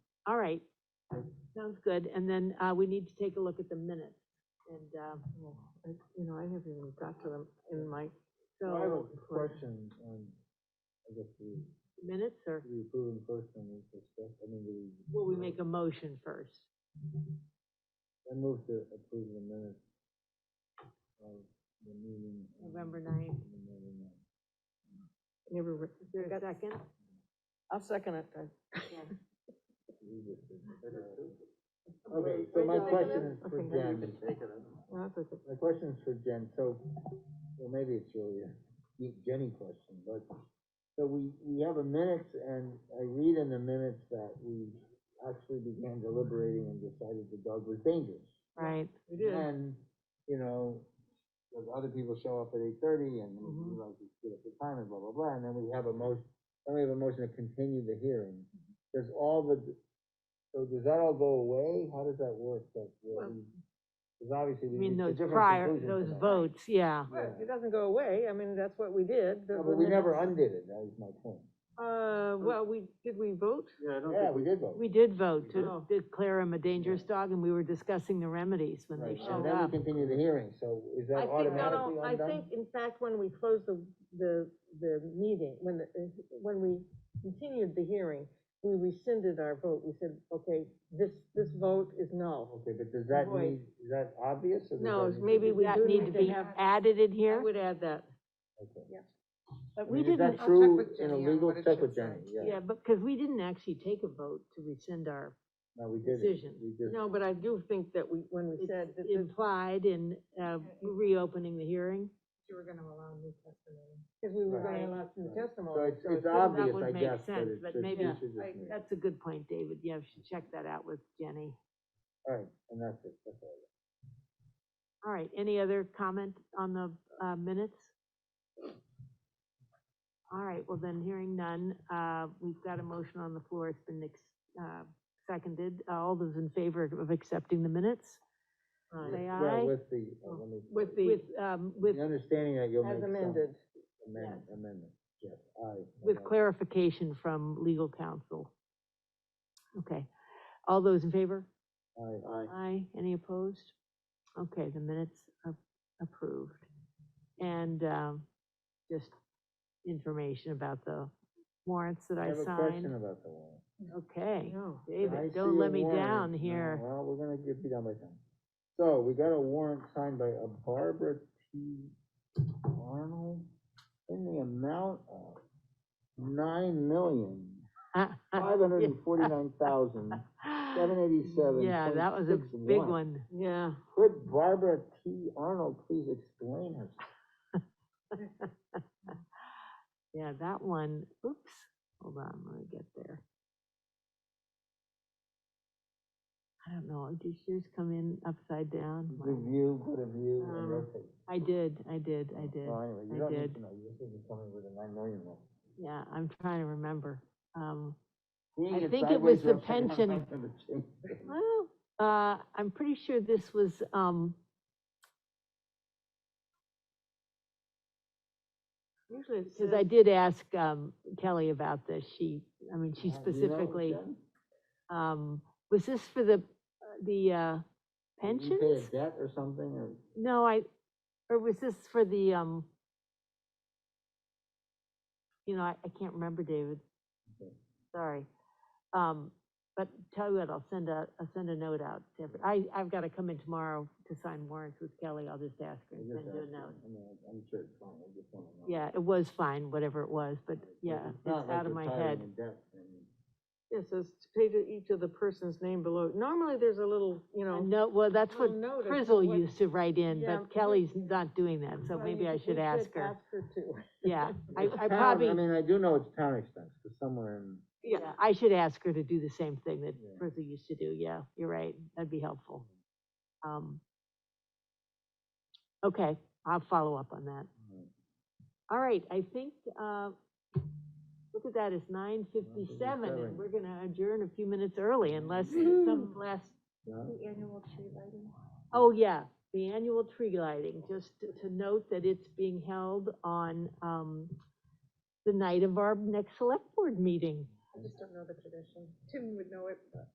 All right, sounds good, and then, uh, we need to take a look at the minutes, and, uh, Well, I- You know, I haven't even got to them in my, Well, I have a so, question on, I guess we, minutes, or we approve them first and we discuss, I mean, we. will we make a motion first? I move to approve the minutes of the meeting. on November 9th. November ninth. never, re- Is there a second? I'll second it. I- We just did that. Okay, so my Wait, question is I for think I Jen. even no, that's okay. My question is for Jen, so, well, maybe it's really a deep Jenny question, but, so we, we have a minutes, and I read in the minutes that we actually began deliberating and decided the dog was dangerous. Right, We did, And, you know, the other people show up at eight thirty, and we Mhm. like, to get up the time, and blah, blah, blah, and then we have a motion, then we have a motion to continue the hearing. Mm-hmm. Does all the, so does that all go away? How does that work? Well- Because obviously I we mean, need a those different prior, conclusion to those that. votes, yeah, Right, it doesn't go away, I mean, that's what we did. the- No, but we never undid it, that was my point. Uh, well, we, did we vote? Yeah, I don't think. we did vote. we did vote to Oh. declare him a dangerous dog, and we were discussing the remedies when Right, they and showed then we up. continue the hearing, so is that I think, no, automatically no, I undone? think, in fact, when we closed the, the, the meeting, when, the- when we continued the hearing, we rescinded our vote, we said, okay, this, this vote is null. Okay, but does that Void. need, is that obvious, or does No, that it's need to maybe be- Did we that do need need to to be have- added in I here? would add that. Okay. But I we mean, is didn't, that true in a legal, check with Jenny, yeah. yeah, but, because we didn't actually take a vote to rescind our No, we did it, decision. we did. No, but I do think that we, when we It's said that this, implied in, uh, reopening the hearing. You were gonna allow new testimony. because we were Right. gonna allow some Right. So testimony. it's, it's it's- obvious, would I make guess, but sense, it but should, we maybe- should I- just make. That's a good point, David. Yeah, we should check that out with Jenny. Alright, and that's it, that's all. All right, any other comment on the, uh, minutes? All right, well then, hearing none, uh, we've got a motion on the floor. It's been, ex- uh, seconded. Uh, All those in favor of accepting the minutes? Aye. Say Well, aye. with the, uh, let me. With the, Oh, With, um, with, The understanding that you'll make as some amended, amendment, amendment, yes, aye. with aye. clarification from legal counsel. Okay, all those in favor? Aye, aye. Aye, any opposed? Okay, the minutes are approved. And, um, just information about the warrants that I I have a question signed. about the warrant. Okay, no. I David, see don't a let me warrant. down No, here. Well, we're gonna get you down by time. So, we got a warrant signed by a Barbara T. Arnold in the amount of nine million, five hundred and forty-nine thousand, seven eighty-seven. Yeah, that was a big one. Yeah. Could Barbara T. Arnold please explain herself? Yeah, that one, oops, hold on, let me get there. I don't know, did yours come in upside down? Review, put a view, Um, and rotate. I did, I did, I did. Well, anyway, I you don't did. need to know, you just need to tell me where the nine million was. Yeah, I'm trying to remember. Um, Seeing think it was sideways the upside down, pension. I'm gonna change it. well, uh, I'm pretty sure this was, um, Usually it because I says- did ask, um, Kelly about this. She, I mean, she Uh, you know, specifically, Jen? um, was this for the, the, uh, Did you pay a pensions? debt or something, or? No, I, or was this for the, um, you know, I, I can't remember, David. Okay. Sorry. Um, but tell you what, I'll send a, I'll send a note out to every, I, I've gotta come in tomorrow to sign warrants with Kelly. I'll just ask her I and just send you a asked you. note. I mean, I'm sure it's fine, I just wanna know. Yeah, it was fine, whatever it was, but Like, yeah, not it's like out of you're my piling head. in debt, I mean, Yeah, It says to pay to each of the person's name below. Normally, there's a little, you know. No, well, that's what little note of Frizzle what- used to write in, Yeah, we- but Kelly's not doing that, so Well, maybe you- I we should ask her. Ask her too. Yeah, I, it's I town- probably. I mean, I do know it's town expense, because somewhere in, Yeah, I should ask her to do the same thing that Yeah. Frizzle used to do, yeah, you're right, that'd be helpful. Um, Okay, I'll follow up on that. uh, All right, I think, uh, look at that, it's nine fifty-seven, and 9:57. we're gonna adjourn a few minutes early unless Woo. some last, yeah, The annual tree lighting. oh, yeah, the annual tree lighting, just to- to note that it's being held on, um, the night of our next select board meeting. I just don't know the tradition. Tim would know it, but